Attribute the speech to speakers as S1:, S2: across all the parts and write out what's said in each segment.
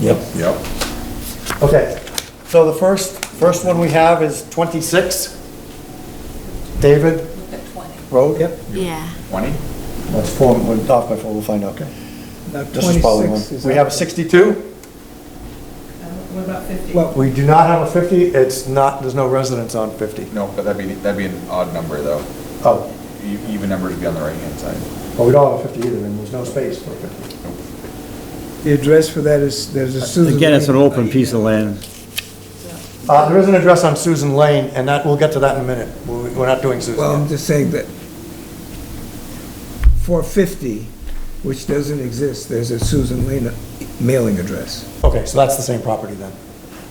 S1: Yep.
S2: Yep.
S3: Okay, so the first, first one we have is 26. David
S4: Look at 20.
S3: Road? Yep.
S5: Yeah.
S2: 20?
S3: That's four, we'll talk by four, we'll find out.
S6: Now,
S3: This is probably one.
S6: 26 Uh, is
S3: We
S6: up.
S3: have a 62?
S4: Uh, What about 50?
S6: Well-
S3: We do not have a 50, it's not, there's no residents on 50.
S2: No, but that'd be, that'd be an odd number, though.
S3: Oh,
S2: E- Even numbers would be on the right-hand side.
S3: well, we don't have a 50 either, and there's no space for a 50.
S6: The address for that is, there's a Susan.
S1: Again, it's an
S6: Lee.
S1: open piece of land.
S3: Uh, there is an address on Susan Lane, and that, we'll get to that in a minute. We're we're not doing
S6: Well,
S3: Susan
S6: I'm
S3: yet.
S6: just saying that for 50, which doesn't exist, there's a Susan Lane uh, mailing address.
S3: Okay, so that's the same property then.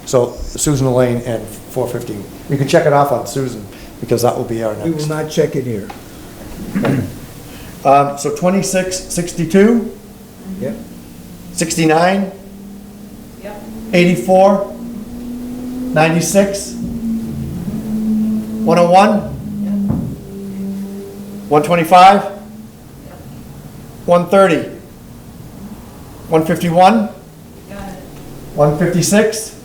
S3: So Susan Lane and 450. You can check it off on Susan, because that will be our next.
S6: We will not check it here.
S3: Mm-hmm. Um, so 26, 62,
S6: Yep.
S3: 69,
S4: Yep,
S3: 84, 96, 101, 125, 130, 151,
S4: got it.
S3: 156,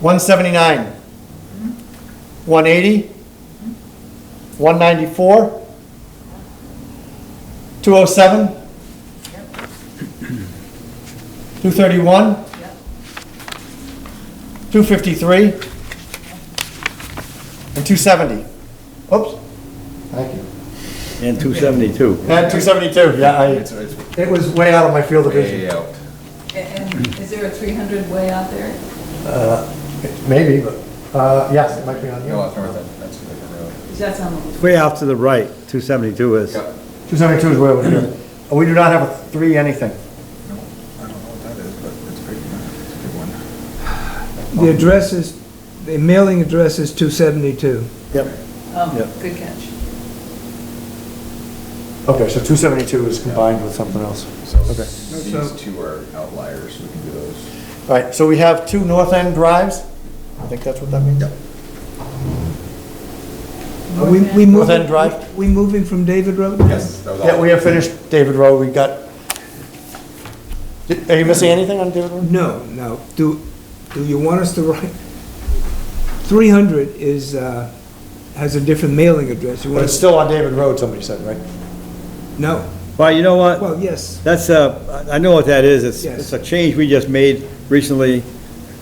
S3: 179,
S4: Mm-hmm.
S3: 180, 194, 207, 231, 253, and 270. Oops. Thank you.
S1: And 272.
S3: And 272, yeah,
S2: It's,
S3: I,
S2: it's
S3: it was way out of my field of vision.
S2: way out.
S4: And and is there a 300 way out there?
S3: Maybe, but, uh, yes, it might be on
S2: No, that's north, end. that's a different road.
S4: Because that's on the,
S1: Way off to the right, 272 is.
S2: Yep.
S3: 272 is where we're here. Oh, We do not have a three anything.
S2: No, I don't know what that is, but it's a big, it's a big one.
S6: The address is, the mailing address is 272.
S3: Yep.
S4: oh,
S1: Yep.
S4: good catch.
S3: Okay, so 272 is combined with something else.
S2: So
S3: Okay.
S2: these two are outliers, we can do those.
S3: All right, so we have two north end drives? I think that's what that means? Yep.
S6: Are we, we
S3: North
S6: moving?
S3: End Drive?
S6: We moving from David Road?
S2: Yes, that was all.
S3: Yeah, we have finished David Road, we got... Did- Are you missing anything on David Road?
S6: No, no. Do, do you want us to write? 300 is, uh, has a different mailing address. You
S3: But
S6: want
S3: it's
S6: us,
S3: still on David Road, somebody said, right?
S6: no.
S1: Well, you know what?
S6: Well, yes,
S1: That's a, I I know what that is. It's,
S6: Yes.
S1: it's a change we just made recently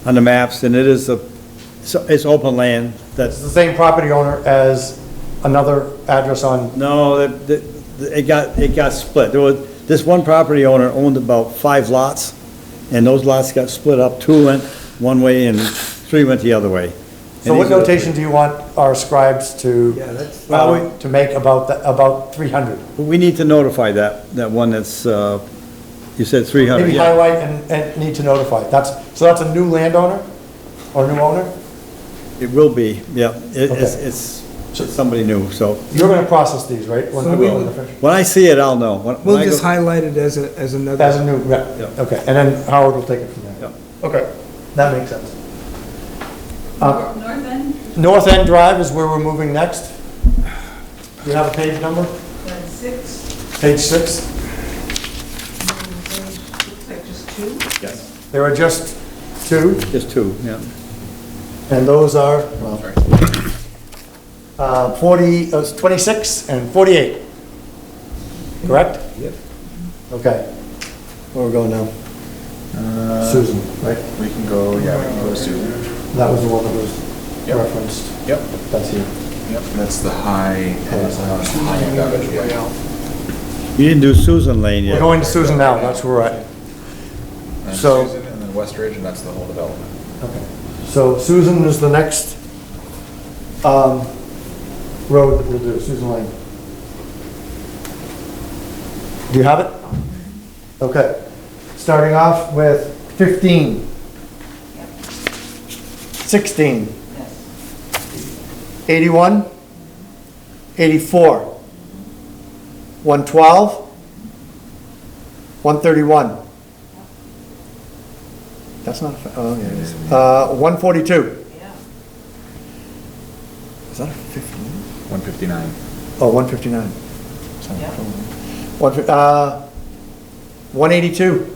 S1: on the maps, and it is a, it's- it's open land.
S3: It's
S1: That's,
S3: the same property owner as another address on,
S1: no, it- it it got, it got split. There was, this one property owner owned about five lots, and those lots got split up. Two went one way and three went the other way.
S3: so
S1: And
S3: what
S1: these are the-
S3: notation do you want our scribes
S6: yeah,
S3: to,
S6: that's,
S1: Well, we-
S3: um, to make about, the- about 300?
S1: We need to notify that, that one that's, uh, you said 300,
S3: Maybe
S1: yeah.
S3: highlight and, and need to notify. That's, so that's a new landowner or new owner?
S1: It will be, yeah. It- It's,
S3: Okay.
S1: it's it's somebody new, so.
S3: You're gonna process these, right? When-
S6: So we will-
S3: when they're finished?
S1: When I see it, I'll know. When- when
S6: we'll
S1: I go-
S6: just highlight it as a, as another.
S3: As a new rep,
S1: Yeah.
S3: okay, and then Howard will take it from
S1: Yeah.
S3: there. Okay, that makes sense. Uh,
S4: Nor- North end,
S3: North End Drive is where we're moving next. Do you have a page number?
S4: then uh, six,
S3: Page six?
S4: and then looks like just two.
S1: Yes,
S3: There are just two,
S1: Just two, yeah.
S3: and those are, well, uh, forty, uh, twenty-six and forty-eight. Correct?
S6: Yep.
S3: Okay. Where we're going now?
S2: Uh,
S3: Susan, right?
S2: We can go, yeah, we can go to Susan.
S3: That was the one that was
S2: Yep.
S3: referenced.
S2: Yep,
S3: That's you.
S2: yep, that's the high.
S3: that's
S2: high end out of the way.
S1: You didn't do Susan Lane
S3: We're
S1: yet.
S3: going to Susan now, that's where we're at.
S2: And
S3: So-
S2: Susan and then West Ridge, and that's the whole development.
S3: Okay. So Susan is the next um, road that we'll do, Susan Lane. Do you have it? Okay. Starting off with 15. 16.
S4: Yes.
S3: 81, 84, 112, 131. That's not, a fa- oh, yeah, it is. Uh, 142.
S4: Yeah.
S3: Is that a 15?
S2: One fifty-nine.
S3: Oh, 159. Sorry.
S4: Yeah.
S3: One fif- uh, 182.